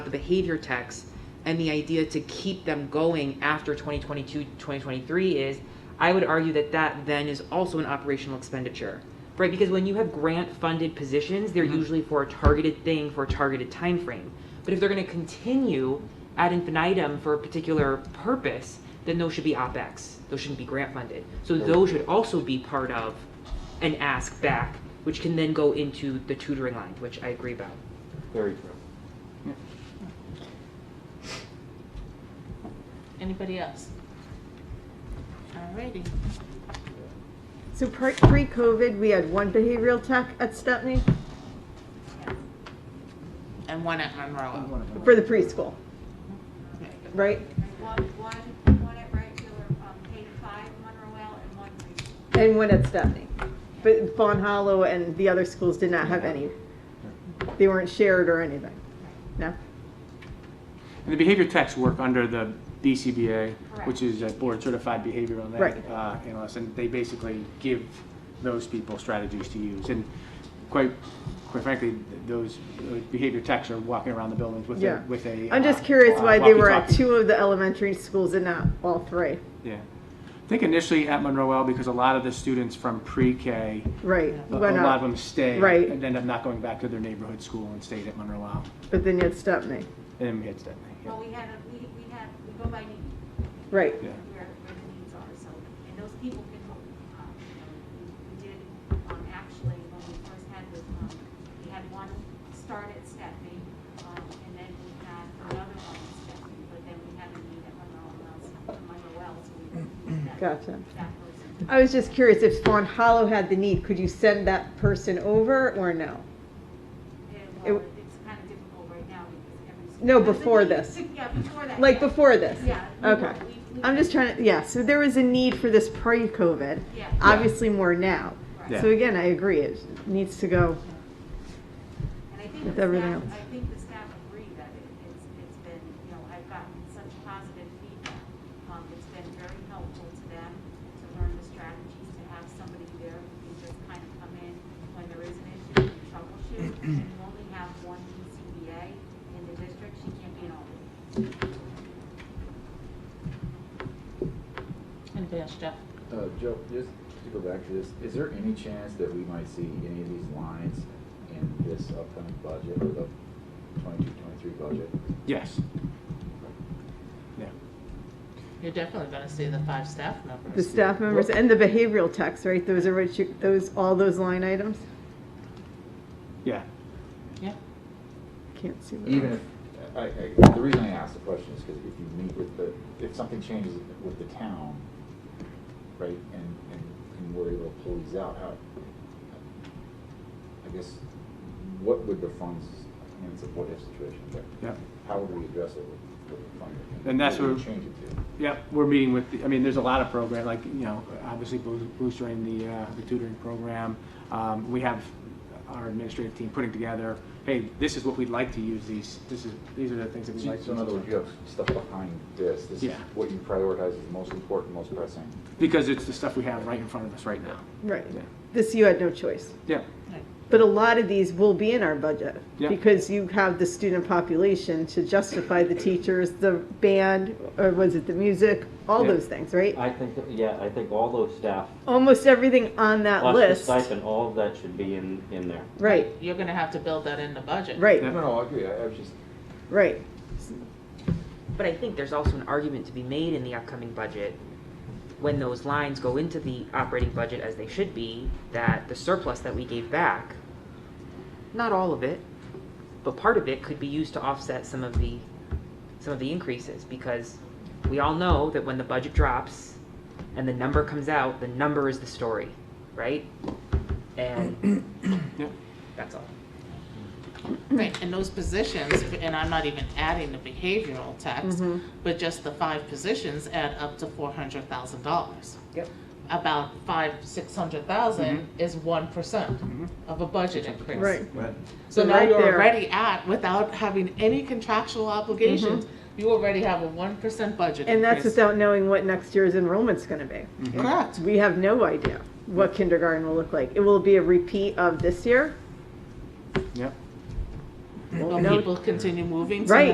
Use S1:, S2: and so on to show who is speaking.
S1: behavior techs and the idea to keep them going after 2022 2023 is i would argue that that then is also an operational expenditure right because when you have grant funded positions they're usually for a targeted thing for a targeted time frame but if they're going to continue ad infinitum for a particular purpose then those should be opex those shouldn't be grant funded so those should also be part of an ask back which can then go into the tutoring line which i agree about
S2: Very true.
S3: Anybody else? Alrighty.
S4: So pre- pre-COVID, we had one behavioral tech at Stepney
S3: And one at Monroe.
S4: for the preschool, right?
S5: One, one, one at regular, um, K to five Monroe and one preschool.
S4: And one at Stepney. But Fawn Hollow and the other schools did not have any. They weren't shared or anything. No?
S6: And the behavior techs work under the BCBA,
S5: Correct.
S6: which is a board certified behavioral
S4: Right.
S6: uh, analyst, and they basically give those people strategies to use. And quite, quite frankly, th- those uh, behavior techs are walking around the buildings with
S4: Yeah.
S6: a, with a.
S4: I'm
S6: uh,
S4: just curious
S6: uh,
S4: why they were at
S6: walkie-talkie.
S4: two of the elementary schools and not all three.
S6: Yeah. I think initially at Monroe L, because a lot of the students from pre-K,
S4: Right.
S6: a a
S4: went
S6: lot of
S4: up,
S6: them stay.
S4: Right.
S6: And end up not going back to their neighborhood school and stayed at Monroe L.
S4: But then you had Stepney.
S6: And then we had Stepney. yeah.
S5: Well, we had, a- we, we had, we go by need,
S4: Right.
S6: Yeah.
S5: where, where the needs are, so, and those people can, help, um, you know, we did, um, actually, when we first had this, um, we had one start at Stepney, um, and then we had another one at Stepney, but then we had a need at Monroe Wells, Monroe Wells, so we moved that, that
S4: Gotcha.
S5: person.
S4: I was just curious if Fawn Hollow had the need, could you send that person over or no?
S5: Yeah,
S4: It-
S5: well, uh, it's kind of difficult right now because every.
S4: No, before this.
S5: Yeah, before that.
S4: Like
S5: yeah.
S4: before this?
S5: Yeah. we
S4: Okay.
S5: will. We- we-
S4: I'm just trying to, yeah, so there was a need for this pre-COVID.
S5: Yeah.
S4: Obviously more now.
S5: Right.
S6: Yeah.
S4: So again, I agree, it needs to go.
S5: And I think
S4: with
S5: the
S4: everything
S5: staff-
S4: else.
S5: I think the staff agree that it, it's, it's been, you know, I've gotten such positive feedback. Um, it's been very helpful to them to learn the strategies, to have somebody there who can just kind of come in when there is an issue and troubleshoot. And you only have one DCBA in the district, she can't be an alternate.
S3: Anybody else, Jeff?
S7: Uh, Joe, just to go back to this, is there any chance that we might see any of these lines in this upcoming budget or the 22-23 budget?
S6: Yes. Yeah.
S3: You're definitely gonna see the five staff members.
S4: The staff members and the behavioral techs, right? Those are what you, those, all those line items?
S6: Yeah.
S3: Yeah.
S4: Can't see. what-
S7: Even if, I, I, the reason I ask the question is because if you meet with the, if something changes with the town, right, and, and, and we're able to pull these out, how, I guess, what would the funds, I mean, it's a what-if situation, but
S6: Yeah.
S7: how would we address it with, with the funding?
S6: And that's
S7: What would
S6: where-
S7: we change it to?
S6: Yep, we're meeting with, the- I mean, there's a lot of program, like, you know, obviously boo- boostering the, uh, the tutoring program. Um, we have our administrative team putting together, hey, this is what we'd like to use these, this is, these are the things that we'd
S7: So
S6: like
S7: so in other
S6: to
S7: words, you
S6: use.
S7: have stuff behind this, this is
S6: Yeah.
S7: what you prioritize as most important, most pressing.
S6: Because it's the stuff we have right in front of us right now.
S4: Right.
S6: Yeah.
S4: This, you had no choice.
S6: Yeah,
S4: But a lot of these will be in our budget.
S6: Yeah.
S4: Because you have the student population to justify the teachers, the band, or was it the music? All
S6: Yeah.
S4: those things, right?
S2: I think, yeah, I think all those staff,
S4: Almost everything on that
S2: plus the
S4: list.
S2: stipend, all of that should be in, in there.
S4: Right,
S3: You're gonna have to build that in the budget.
S4: right,
S6: Yeah.
S7: No, no, I agree, I I was just,
S4: right.
S1: But I think there's also an argument to be made in the upcoming budget, when those lines go into the operating budget as they should be, that the surplus that we gave back, not all of it, but part of it could be used to offset some of the, some of the increases, because we all know that when the budget drops and the number comes out, the number is the story, right? And
S6: yeah.
S1: that's all.
S3: Right, and those positions, and I'm not even adding the behavioral tax,
S4: Mhm.
S3: but just the five positions add up to four hundred thousand dollars.
S1: Yep.
S3: About five, six hundred thousand
S4: Mm-hmm.
S3: is one percent of a budget increase.
S4: Right.
S6: But
S3: So
S4: So
S3: now
S4: right
S3: you're
S4: there-
S3: already at, without having any contractual obligations, you already have a one percent budget
S4: Mm-hmm. And that's
S3: increase.
S4: without knowing what next year's enrollment's gonna be.
S3: Correct.
S4: We have no idea what kindergarten will look like. It will be a repeat of this year.
S6: Yep.
S3: When
S4: No. Mm-hmm.
S3: people continue moving to
S4: Right.